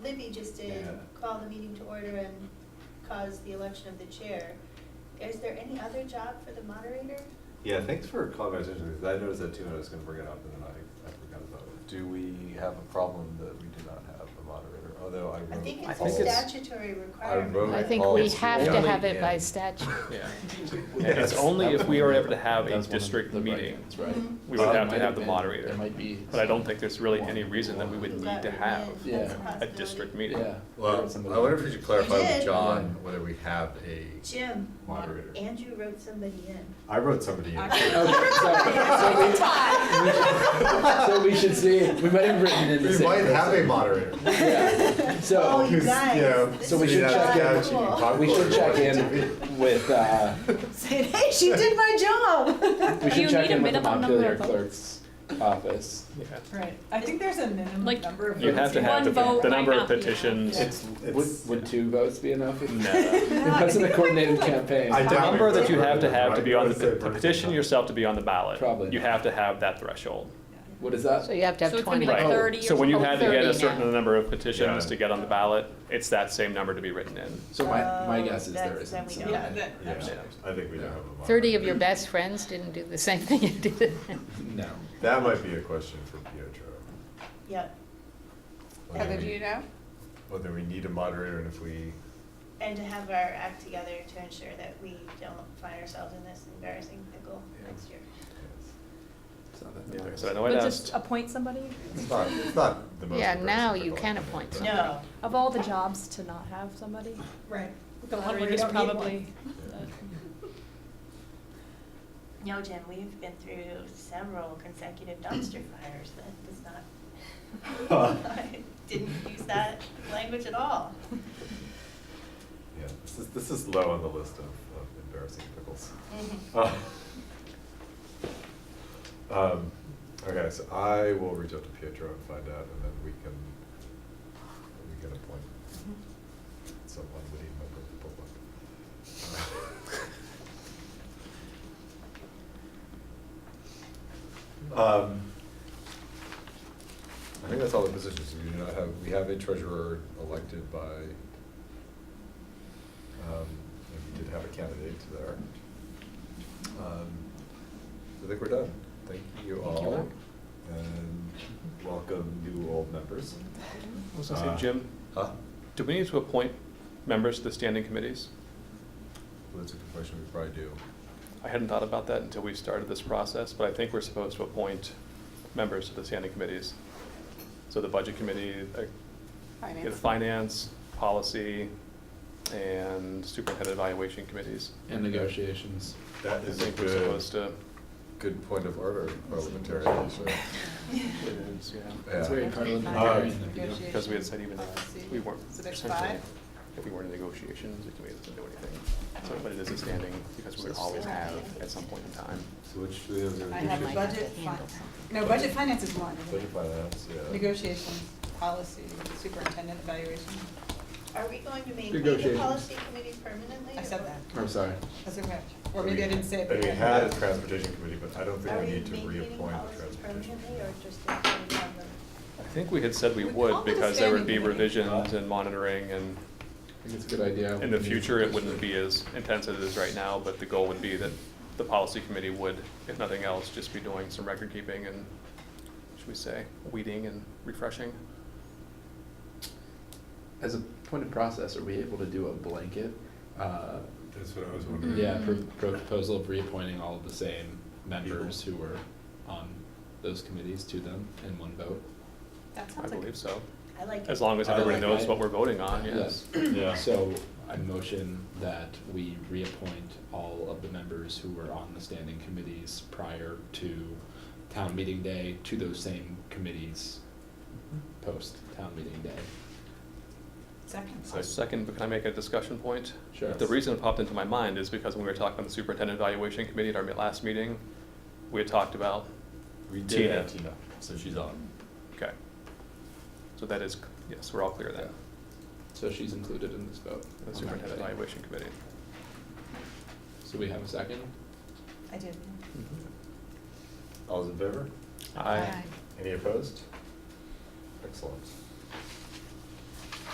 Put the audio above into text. just did Yeah. call the meeting to order and cause the election of the chair. Is there any other job for the moderator? Yeah, thanks for calling my attention, because I noticed that too, and I was gonna bring it up, and then I, I forgot about it. Do we have a problem that we do not have a moderator, although I wrote. I think it's I a think it's- statutory I wrote. I requirement. think we policy. have to Only have it by in- statute. Yeah. And Yes. It's only if we are able to have That a was one of district the right meeting, ones, right. Mm-hmm. we would That have to might have have the been- moderator. there might be But I don't think there's really one. any reason that we would Who need got to have written in, Yeah. that's a possibility. district meeting. Yeah. Well, I wonder if we should clarify You did. with John whether we have a. Jim. Moderator. Andrew wrote somebody in. I wrote somebody in. So we should see, we might have written it in the We same might have a person. moderator. Yeah. Oh, So you guys. so we this should is check kinda in. cool. we should check in with, uh, Say, hey, she did my job. we You should check need a in with the minimum number Montpelier of clerk's office. Yeah. Right, I think there's a minimum Like, number of votes. You have to have the, One vote the might number of not be enough. petitions. Yeah. It's, would, would two votes be enough? No. It wasn't a coordinated campaign. I The doubt number we that you wrote have to it, have to right? be on the, Let's say to petition version. yourself to be on the ballot. Probably. You have to have that threshold. What is that? So you have to So have it's gonna be twenty. like Right. 30 or So when you had to get a 30 certain now. number of petitions Yeah. to get on the ballot, it's that same number to be written in. So my, my Um, Oh, guess is there that's- then isn't. we so- don't. Yeah, that, Yeah, I think we do have a moderator. Thirty of your best friends didn't do the same thing you did. No. That might be a question for Pietro. Yep, Whether Heather, do we- you know? Whether we need a moderator and if we, and to have our act together to ensure that we don't find ourselves in this embarrassing pickle Yeah. next year. It's not that Yeah, matters. So I know I But just asked, appoint somebody? it's not, it's not the most. Yeah, now embarrassing you pickle can I've been in, appoint but- someone. No, Of all the jobs to not have somebody, Right. the Lottery, lottery is don't need probably. Yeah. no, Jim, we've been through several consecutive dumpster fires. That does not, I didn't use that language at all. Yeah, this is, this is low on the list of, of embarrassing pickles. Mm-hmm. Uh, Um, okay, so I will reach out to Pietro and find out, and then we can, we can appoint someone we need member of the public. Um, I think that's all the positions, we do not have, we have a treasurer elected by, um, and we did have a candidate there. Um, I think we're done. Thank you Thank you all. all. And welcome new old members. I was gonna say, Jim, Huh? do we need to appoint members to the standing committees? Well, That's a good question, we probably do. I hadn't thought about that until we started this process, but I think we're supposed to appoint members to the standing committees. So the budget committee, uh, yeah, the Finance. finance, policy, and superintendent evaluation committees. And negotiations. That I is a think we're supposed good, to. good point of order, parliamentarian, so, It is, yeah. That's very yeah. parliamentary. Um, you know. Because we had said even if we weren't. So there's essentially, five? If we weren't in negotiations, the committee doesn't do anything. So, but it is a standing because we always have at some point in time. So which, we have. I Might have my have to budget, handle fin- something. no, budget finance is one, isn't Budget it? finance, yeah. Negotiations, policy, superintendent evaluation, Are we going to maintain the Negotiations. policy committee permanently? I said that, I'm sorry. that's okay, or maybe I didn't say it. And but- we had a transportation committee, but I don't think Are we we need to maintaining reappoint the policy transportation. permanently committee. or just appointing them? I think we had said we We would called it a because there would be standing committee. revisions and monitoring and I think it's a good idea. in the future, it wouldn't be as intense as it is right now, but the goal would be that the policy committee would, if nothing else, just be doing some record keeping and, should we say, weeding and refreshing. As a point of process, are we able to do a blanket, uh, That's what I was wondering. yeah, pro- proposal of reappointing all of the same members who were on those committees to them in one vote? That I sounds like, believe so. I like As it. long as I everybody like knows that. what we're voting on, Ah, yes. Yeah. So I motion that we reappoint all of the members who were on the standing committees prior to town meeting day to those same committees post town meeting day. second. I'll Second, but can I make a discussion point? Sure. The reason it popped into my mind is because when we were talking about the superintendent evaluation committee at our last meeting, we had talked about, We Tina. did have Tina, so she's on. okay. So that is, yes, we're all clear then, So she's included in this vote. the superintendent evaluation committee. So we have a second? I did. Mm-hmm. All those in favor? Aye. Any opposed? Excellent.